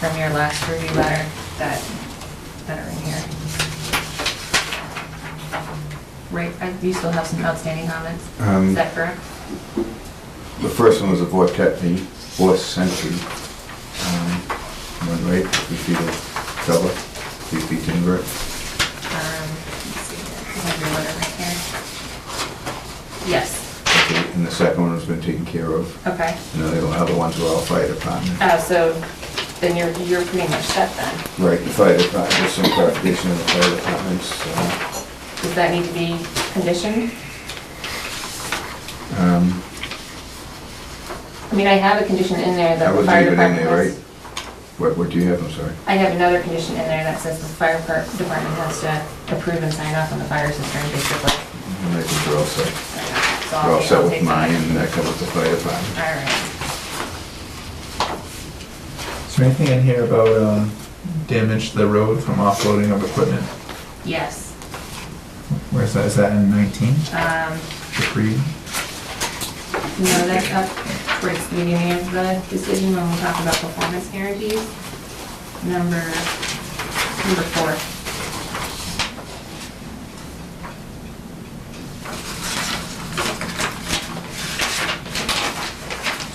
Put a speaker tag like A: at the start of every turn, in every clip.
A: from your last review letter that, that are in here. Right, uh, you still have some outstanding comments?
B: Um,
A: Is that correct?
B: The first one was a vortex, the fourth century. um, One right, three feet of cover, three feet timber.
A: Um, let's see here. I have your letter right here. Yes,
B: Okay, And the second one has been taken care of.
A: okay.
B: And the other ones were all fire department.
A: Uh, so then you're, you're pretty much set then.
B: Right, the fire department, there's some clarification on the fire departments. uh,
A: Does that need to be conditioned?
B: um,
A: I mean, I have a condition in there
B: I
A: that the
B: would
A: fire
B: leave it in
A: department
B: there, right?
A: has.
B: What, what do you have, I'm sorry?
A: I have another condition in there that says the fire per- department has to approve and sign off on the fire system, basically.
B: I think we're all set.
A: So
B: We're all
A: I'll
B: set
A: I'll
B: with
A: take
B: mine,
A: that.
B: and that covers the fire department.
A: All right.
C: Is there anything in here about um, damage to the road from offloading of equipment?
A: Yes.
C: Where's that, is that in 19,
A: Um,
C: the pre?
A: No, that's up towards the beginning of the decision when we talk about performance guarantees. Number, number four.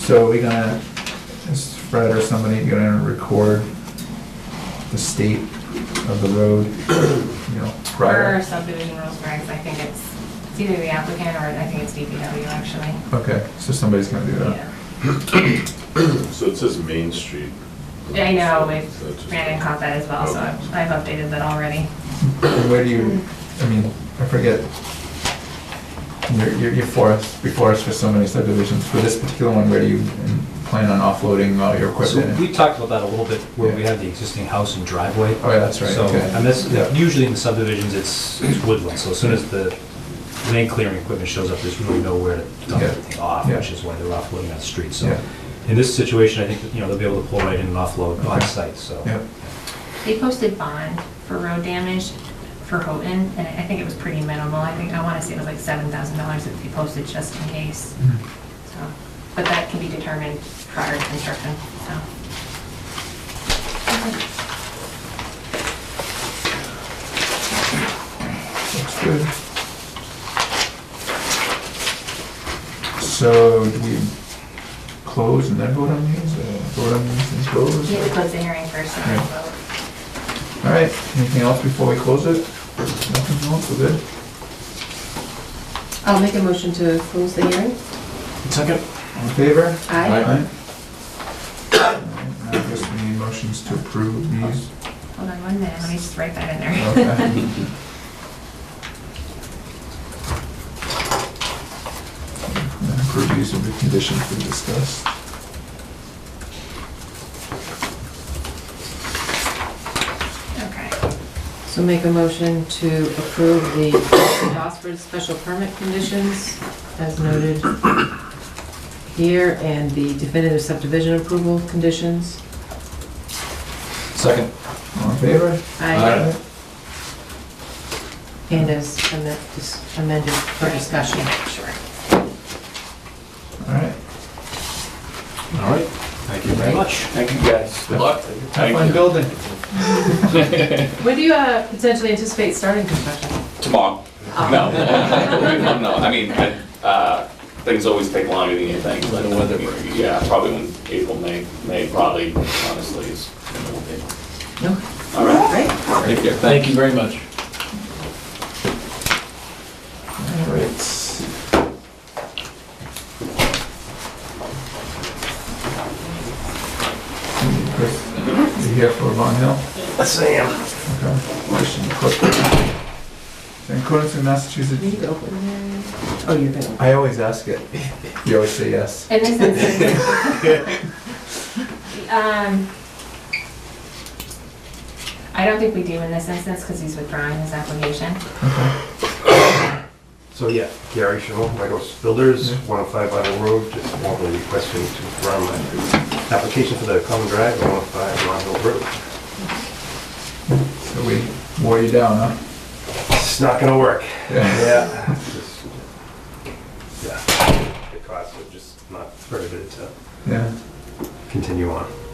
C: So are we gonna, is Fred or somebody gonna record the state of the road, you know,
A: Per
C: prior?
A: subdivision rules regs, I think it's, it's either the applicant or I think it's DPW actually.
C: Okay, so somebody's gonna do that.
A: Yeah.
D: So it says Main Street.
A: I know, we
D: So it's just-
A: ran and caught that as well, so I've I've updated that already.
C: And Where do you, I mean, I forget, you're, you're- you're for us, before us for so many subdivisions, for this particular one, where do you plan on offloading all your
E: So
C: equipment?
E: we talked about that a little bit, where we
C: Yeah.
E: have the existing house and driveway.
C: Oh, yeah, that's right,
E: So,
C: okay.
E: and this,
C: Yeah.
E: usually in the subdivisions, it's it's woodland, so as soon as the land clearing equipment shows up, there's really nowhere to dump
C: Yeah.
E: everything off,
C: Yeah.
E: which is why they're offloading on the street, so.
C: Yeah.
E: In this situation, I think, that, you know, they'll be able to pull right in and offload on
C: Okay.
E: site, so.
C: Yeah.
A: They posted bond for road damage for Houghton, and I think it was pretty minimal. I think, I want to say it was like seven thousand dollars that they posted just in case. So, but that can be determined prior to construction, so.
C: Looks good. So do we close and then vote on these, or vote on these and close?
A: You have to close the hearing first and then
C: Yeah.
A: vote.
C: All right, anything else before we close it? Nothing else, we're good?
F: I'll make a motion to close the hearing.
E: Second.
C: All in favor?
F: Aye.
C: All right, now I guess we need motions to approve these.
A: Hold on one minute, let me just write that in there.
C: Okay. Approve these with the conditions we discussed.
A: Okay.
F: So make a motion to approve the phosphorus special permit conditions as noted here and the definitive subdivision approval conditions.
E: Second.
C: All in favor?
F: Aye. And as amen- dis- amended for discussion.
A: Sure.
C: All right.
E: All right, thank you very much.
G: Thank you, guys. Good luck.
C: Have fun building.
F: When do you uh, potentially anticipate starting construction?
G: Tomorrow. No. No, I mean, I- uh, things always take longer than you think. but,
H: When the weather
G: Yeah, probably when April, May, May probably, honestly, is. when it'll be.
F: No.
G: All right.
F: Right?
H: Thank you very much.
C: All right. Chris, you here for Long Hill? Yes, I am. In accordance with
F: You need
C: Massachusetts,
F: to open it. Oh, you're gonna.
C: I always ask it. You always say yes.
A: In this instance. Um, I don't think we do in this instance because he's withdrawing his application.
I: So yeah, Gary Schimmel, White House Builders,
C: Yeah.
I: 105 Vital Road, just formally requesting to run my application for the common drive, 105 Long Hill Road.
C: So we wore you down, huh?
I: It's not gonna work.
C: Yeah.
I: Yeah. It's just- Yeah. The costs are just not prohibitive to
C: Yeah.
I: continue on.